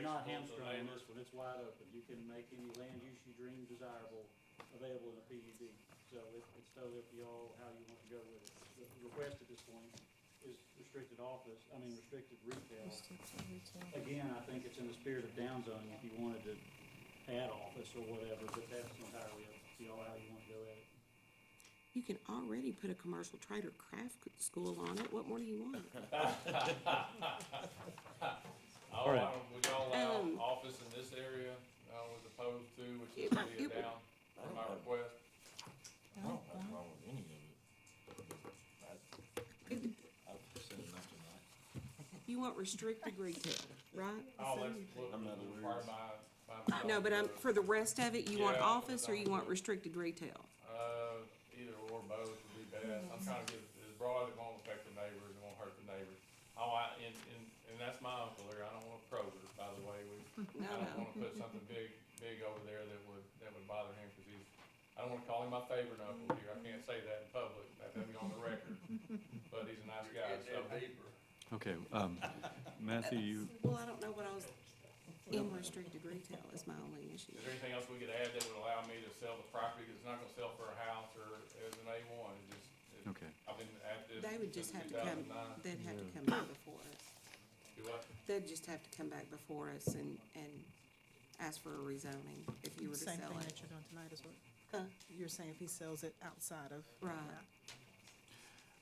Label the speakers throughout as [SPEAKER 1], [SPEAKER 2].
[SPEAKER 1] not
[SPEAKER 2] homes are
[SPEAKER 1] hamstrung on
[SPEAKER 2] there.
[SPEAKER 1] this one, it's wide open, you can make any land use you dream desirable available in a PUD. So it, it's totally up to y'all how you want to go with it. The request at this point is restricted office, I mean restricted retail. Again, I think it's in the spirit of downzoning if you wanted to add office or whatever, but that's entirely up to y'all how you want to go at it.
[SPEAKER 3] You can already put a commercial trade or craft c- school on it, what more do you want?
[SPEAKER 2] Oh,
[SPEAKER 1] All right.
[SPEAKER 2] I don't- would y'all allow
[SPEAKER 3] Um,
[SPEAKER 2] office in this area, uh, I was opposed to, which is
[SPEAKER 3] It would-
[SPEAKER 2] city
[SPEAKER 3] it
[SPEAKER 2] of
[SPEAKER 3] would-
[SPEAKER 2] down,
[SPEAKER 4] I
[SPEAKER 2] for
[SPEAKER 4] don't
[SPEAKER 2] my
[SPEAKER 4] have-
[SPEAKER 2] request.
[SPEAKER 4] I don't have a problem with any of it. I- I've seen enough tonight.
[SPEAKER 3] You want restricted retail, right?
[SPEAKER 2] Oh, that's what
[SPEAKER 4] I'm not
[SPEAKER 2] was
[SPEAKER 4] aware.
[SPEAKER 2] required by, by. the
[SPEAKER 3] No, but um,
[SPEAKER 2] zoning
[SPEAKER 3] for the rest of it, you want
[SPEAKER 2] Yeah,
[SPEAKER 3] office or you
[SPEAKER 2] that's-
[SPEAKER 3] want restricted retail?
[SPEAKER 2] code. Uh, either or both would be best, I'm trying to get it as broad, it won't affect the neighbors, it won't hurt the neighbors. Oh, I, and, and, and that's my uncle there, I don't wanna probe it, by the way, we, I don't
[SPEAKER 3] No, no.
[SPEAKER 2] wanna put something big, big over there that would, that would bother him, cause he's, I don't wanna call him my favorite uncle here, I can't say that in public, that would be on the record. But he's a nice guy, so.
[SPEAKER 5] Okay, um, Matthew, you,
[SPEAKER 3] Well, I don't know what I was, in restricted retail is my only issue.
[SPEAKER 2] Is there anything else we could add that would allow me to sell the property, cause it's not gonna sell for a house or as an A one, it just, it-
[SPEAKER 5] okay,
[SPEAKER 2] I've been at this
[SPEAKER 3] They would just
[SPEAKER 2] since
[SPEAKER 3] have
[SPEAKER 2] two
[SPEAKER 3] to come,
[SPEAKER 2] thousand nine.
[SPEAKER 3] they'd have to come back before us.
[SPEAKER 2] Do what?
[SPEAKER 3] They'd just have to come back before us and, and ask for a rezoning if you were to sell
[SPEAKER 6] Same thing
[SPEAKER 3] it.
[SPEAKER 6] that you're doing tonight is what,
[SPEAKER 3] Huh?
[SPEAKER 6] you're saying if he sells it outside of.
[SPEAKER 3] Right.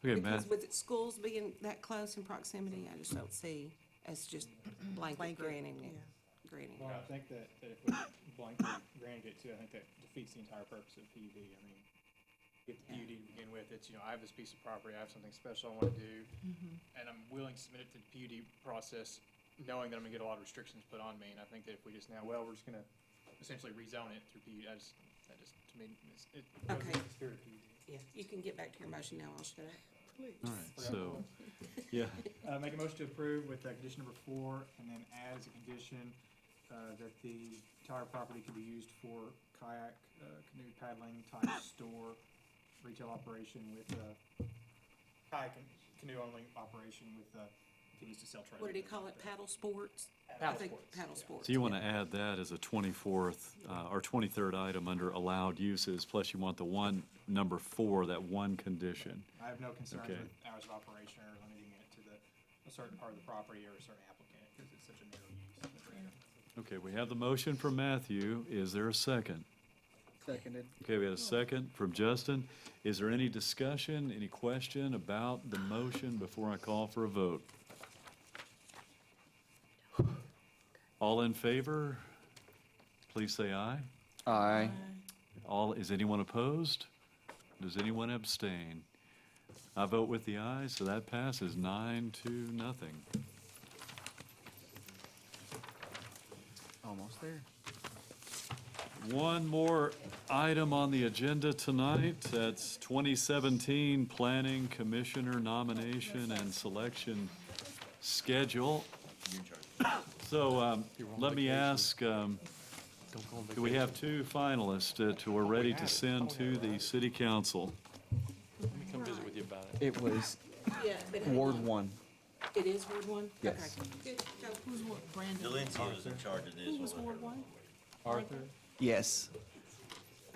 [SPEAKER 5] okay, Matt,
[SPEAKER 3] Because with it- schools being that close in proximity, I just don't see us just blanket
[SPEAKER 6] Blanket,
[SPEAKER 3] granting
[SPEAKER 6] Yeah,
[SPEAKER 3] it, granting.
[SPEAKER 7] Well, I think that, that if we blanket granted it too, I think that defeats the entire purpose of PUD. I mean, get the PUD to begin with, it's, you know, I have this piece of property, I have something special I wanna do, and I'm willing to submit it to the PUD process, knowing that I'm gonna get a lot of restrictions put on me, and I think that if we just now, well, we're just gonna essentially rezone it through PUD, I just, that just, to me, it's, it goes
[SPEAKER 3] Okay.
[SPEAKER 7] against the spirit of PUD.
[SPEAKER 3] Yeah, you can get back to your motion now, I'll shut up.
[SPEAKER 5] all right, so, yeah,
[SPEAKER 7] Uh, make a motion to approve with uh, condition number four, and then add as a condition, uh, that the entire property can be used for kayak, uh, canoe paddling type store, retail operation with, uh, kayak and canoe only operation with, uh, continues to sell trailer.
[SPEAKER 3] What did he call it, paddle sports? I
[SPEAKER 7] Paddle
[SPEAKER 3] think
[SPEAKER 7] sports.
[SPEAKER 3] Paddle
[SPEAKER 7] yeah.
[SPEAKER 3] sports.
[SPEAKER 5] so you wanna add that as a twenty-fourth, uh, or twenty-third item under allowed uses, plus you want the one, number four, that one condition.
[SPEAKER 7] I have no concerns
[SPEAKER 5] Okay.
[SPEAKER 7] with hours of operation or limiting it to the, a certain part of the property or a certain applicant, because it's such a narrow use. in the area.
[SPEAKER 5] Okay, we have the motion from Matthew, is there a second?
[SPEAKER 8] Seconded.
[SPEAKER 5] Okay, we had a second from Justin, is there any discussion, any question about the motion before I call for a vote? All in favor, please say aye.
[SPEAKER 8] Aye.
[SPEAKER 5] All, is anyone opposed? Does anyone abstain? I vote with the aye, so that passes nine to nothing.
[SPEAKER 8] Almost there.
[SPEAKER 5] One more item on the agenda tonight, that's 2017 Planning Commissioner Nomination and Selection Schedule. So um, let me ask, um, do we have two finalists that are ready to send to the city council?
[SPEAKER 3] Come visit with you.
[SPEAKER 8] It was
[SPEAKER 3] Yeah, but hang
[SPEAKER 8] Ward
[SPEAKER 3] on.
[SPEAKER 8] one.
[SPEAKER 3] It is Ward one?
[SPEAKER 8] Yes.
[SPEAKER 3] Okay, good, so
[SPEAKER 6] who's what, Brandon?
[SPEAKER 4] Delancey was in charge of this
[SPEAKER 3] who
[SPEAKER 4] one.
[SPEAKER 3] was Ward one?
[SPEAKER 8] Yes.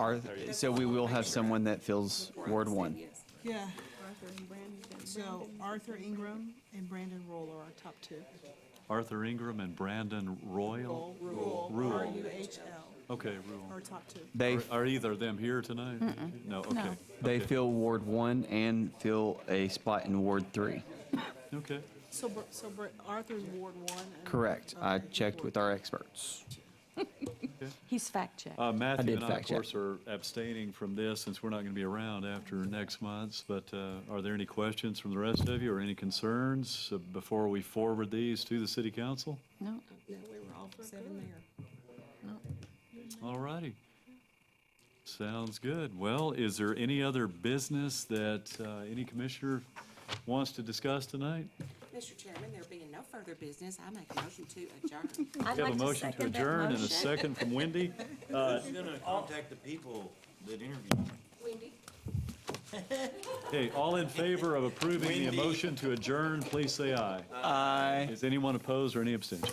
[SPEAKER 8] Arthur, so we will have someone that fills Ward one.
[SPEAKER 3] Yes.
[SPEAKER 6] Yeah. So Arthur Ingram and Brandon Roll are our top two.
[SPEAKER 5] Arthur Ingram and Brandon Royal?
[SPEAKER 6] Rule, R U H L,
[SPEAKER 5] Okay,
[SPEAKER 6] our
[SPEAKER 5] Rule.
[SPEAKER 6] top two.
[SPEAKER 8] They,
[SPEAKER 5] Are- Are either of them here tonight? No, okay.
[SPEAKER 8] they
[SPEAKER 5] okay,
[SPEAKER 8] fill Ward one and fill a spot in Ward three.
[SPEAKER 5] Okay,
[SPEAKER 6] So, Br- so Br- Arthur's Ward one. and-
[SPEAKER 8] Correct. I
[SPEAKER 6] okay,
[SPEAKER 8] checked with
[SPEAKER 6] Ward-
[SPEAKER 8] our experts.
[SPEAKER 9] He's fact-checked.
[SPEAKER 5] Uh, Matthew
[SPEAKER 8] did
[SPEAKER 5] and I, of
[SPEAKER 8] fact check.
[SPEAKER 5] course, are abstaining from this since we're not going to be around after next month's. But uh, are there any questions from the rest of you or any concerns uh, before we forward these to the city council?
[SPEAKER 9] No,
[SPEAKER 3] No, we were all seven there.
[SPEAKER 5] All righty. Sounds good. Well, is there any other business that uh, any commissioner wants to discuss tonight?
[SPEAKER 3] Mr. Chairman, there being no further business, I make a motion to adjourn.
[SPEAKER 9] I'd
[SPEAKER 5] We
[SPEAKER 9] like
[SPEAKER 5] have a
[SPEAKER 9] to
[SPEAKER 5] motion to
[SPEAKER 9] second that
[SPEAKER 5] adjourn and a
[SPEAKER 9] motion.
[SPEAKER 5] second from Wendy. Uh,
[SPEAKER 4] Who's gonna contact the people that interviewed?
[SPEAKER 3] Wendy?
[SPEAKER 5] Hey, all in favor of approving the
[SPEAKER 4] Wendy.
[SPEAKER 5] motion to adjourn, please say aye.
[SPEAKER 8] Aye.
[SPEAKER 5] Is anyone opposed or any abstention?